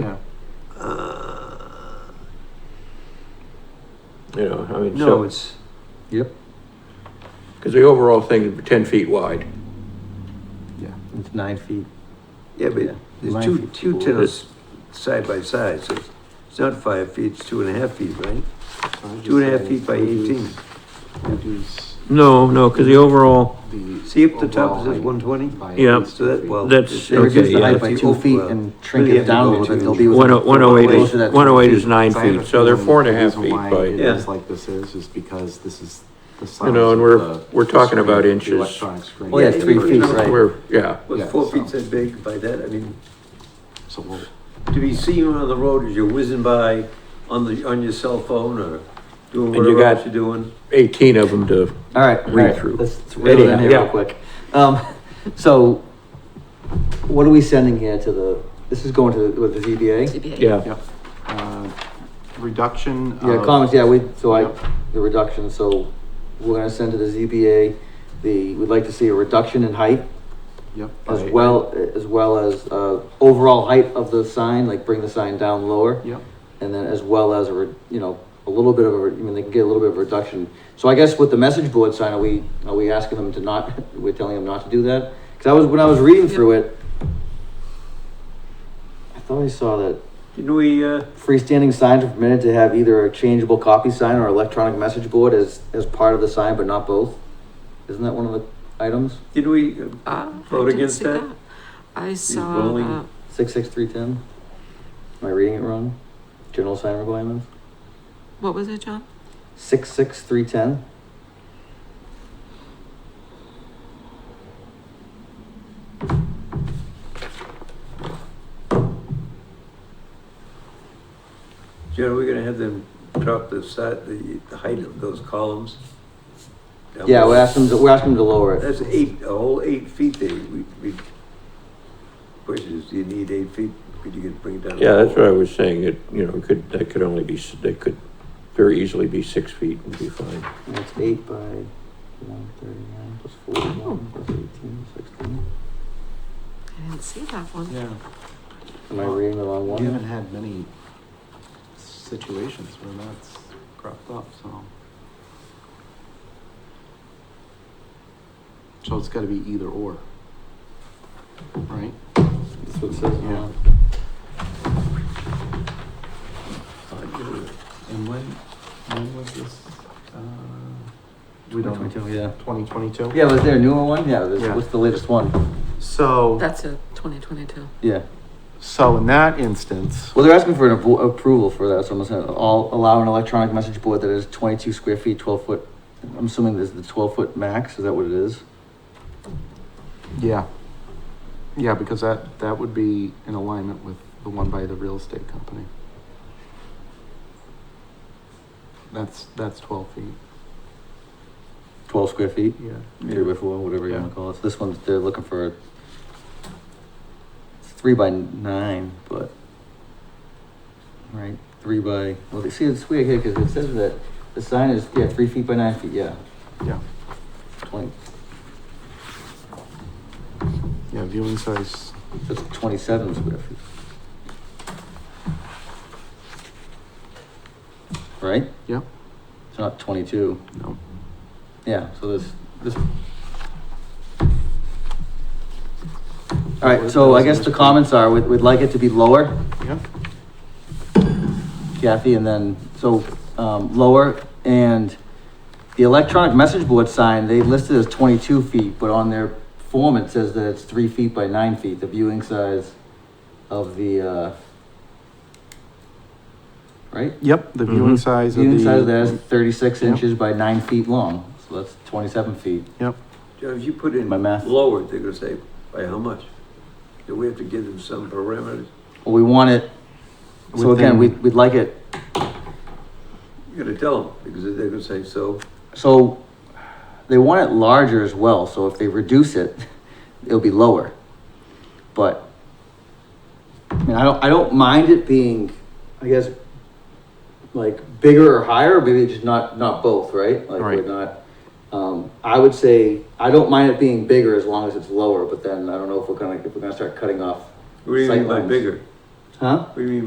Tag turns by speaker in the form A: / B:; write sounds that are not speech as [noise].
A: Yeah.
B: You know, I mean,
A: No,
B: so,
A: it's, yep,
B: because the overall thing is ten feet wide.
A: yeah, it's nine feet.
C: Yeah,
A: Yeah.
C: but there's
A: Nine
C: two,
A: feet
C: two
A: tall.
C: tennis side by side, so it's- it's not five feet, it's two and a half feet, right? Two and a half feet by eighteen.
B: No, Oh, no, because the overall,
C: See if the top says one twenty?
B: Yeah.
C: So that, well.
B: That's-
C: it's-
A: They reduce the
B: yeah.
A: height by two feet and shrink
C: Really
A: it
C: have to
A: down a
C: go
A: little bit,
C: to-
A: they'll be.
B: one
A: within-
B: oh- one oh eight
A: closer to
B: is,
A: that
B: one oh eight is
A: 20
B: nine
D: So I have a
B: feet, so they're
D: feeling
B: four and a
D: the
B: half
D: reason
B: feet
D: why It
B: by,
C: Yeah.
D: is like this is, is because this is the size.
B: You know,
D: of
B: and we're-
D: the
B: we're talking about
D: screen, the
B: inches.
D: Electronic screen.
C: Oh,
A: Well, yeah, three feet, right.
B: we're, yeah.
C: Was
D: Yeah,
C: four
D: so-
C: feet that big by that, I mean,
D: So we'll,
C: to be seen on the road as you're whizzing by on the, on your cell phone or doing
B: And you
C: whatever else
B: got-
C: you're doing.
B: Eighteen of them to,
A: All right, all
B: Read
A: right,
B: through.
A: let's reel it in
B: Anyhow,
A: here real
B: yeah.
A: quick. Um, so what are we sending here to the, this is going to, the- with the ZBA?
E: ZBA.
B: yeah,
D: yep. Uh, Reduction
A: Yeah,
D: of-
A: comments, yeah, we, so I,
D: Yep.
A: the reduction, so we're gonna send to the ZBA, the, we'd like to see a reduction in height
D: Yep.
A: as
D: by-
A: well, as well as, uh, overall height of the sign, like bring the sign down lower.
D: Yep,
A: and then as well as a, re- you know, a little bit of a, re- I mean, they can get a little bit of a reduction. So I guess with the message board sign, are we, are we asking them to not, [laughs] we're telling them not to do that? Cause I was, when I was reading through it, I thought I saw that
C: Didn't we, uh,
A: freestanding signs are permitted to have either a changeable copy sign or electronic message board as, as part of the sign, but not both. Isn't that one of the items?
C: didn't we, uh,
E: Ah, I
C: Vote
E: didn't
C: against
E: see
C: that?
E: I saw
C: rolling.
E: that.
A: Six, six, three, ten? Am I reading it wrong? General sign requirements?
E: What was it, John?
A: Six, six, three, ten?
C: Jen, are we gonna have them drop the side, the, the height of those columns? Down
A: Yeah,
C: below?
A: we're asking, them to- we're asking them to lower it.
C: That's eight, a whole eight feet there, we, we, question is, do you need eight feet, could you get, bring it down?
B: yeah,
C: to
B: that's
C: four?
B: what I was saying, it, you know, could, that could only be, s- that could very easily be six feet and be fine.
A: That's eight by one thirty-nine plus forty-one plus eighteen, sixteen.
E: I didn't see that one.
D: yeah.
A: Am I reading the wrong
D: We haven't
A: one?
D: had many situations where that's cropped up, so. So it's gotta be either or. Right?
A: That's what it says.
D: Yeah.
A: on
D: And when, when was this? uh, We
A: it.
D: don't know.
A: 22, Yeah.
D: Twenty twenty-two?
A: Yeah, was there a newer one? Yeah, this,
D: Yeah.
A: what's the latest one?
D: So,
E: That's a 2022.
A: Yeah.
D: so in that instance,
A: Well, they're asking for an appro- approval for that, so I'm saying, all, allow an electronic message board that is twenty-two square feet, twelve foot. I'm assuming this is the twelve foot max, is that what it is?
D: yeah. Yeah, because that, that would be in alignment with the one by the real estate company. That's, that's twelve feet,
A: Twelve square feet,
D: yeah.
A: three by four, whatever you
D: Yeah.
A: wanna call it. So This one's, they're looking for a it's three by nine, but right, three by, well, they- see, it's weird here, cause it says that the sign is, yeah, three feet by nine feet, yeah.
D: Yeah.
A: Twenty,
D: Yeah, viewing size,
A: that's twenty-seven square feet. Right?
D: Yep.
A: It's not twenty-two,
D: no,
A: yeah, so this, this. All right, so I guess the comments are, we'd, we'd like it to be lower,
D: yeah,
A: Kathy, and then, so, um, lower, and the electronic message board sign, they listed as twenty-two feet, but on their form, it says that it's three feet by nine feet, the viewing size of the, uh, right?
D: yep, the viewing
B: Mhm.
D: size of the.
A: Viewing size of that is thirty-six
D: Yep.
A: inches by nine feet long, so that's twenty-seven feet.
D: Yep,
C: John, if you put in
A: My math.
C: lower, they're gonna say, by how much? Do we have to give them some parameters?
A: Well, we want it, so again,
D: Within-
A: we'd, we'd like it,
C: You're gonna tell them, because they're gonna say, so,
A: so they want it larger as well, so if they reduce it, [laughs] it'll be lower. But, I mean, I don't, I don't mind it being, I guess, like bigger or higher, maybe just not, not both, right? Like we're
D: Right.
A: not, um, I would say, I don't mind it being bigger as long as it's lower, but then I don't know if we're gonna, if we're gonna start cutting off.
C: what do you mean by
A: sightlines.
C: bigger?
F: Huh?
C: What do you mean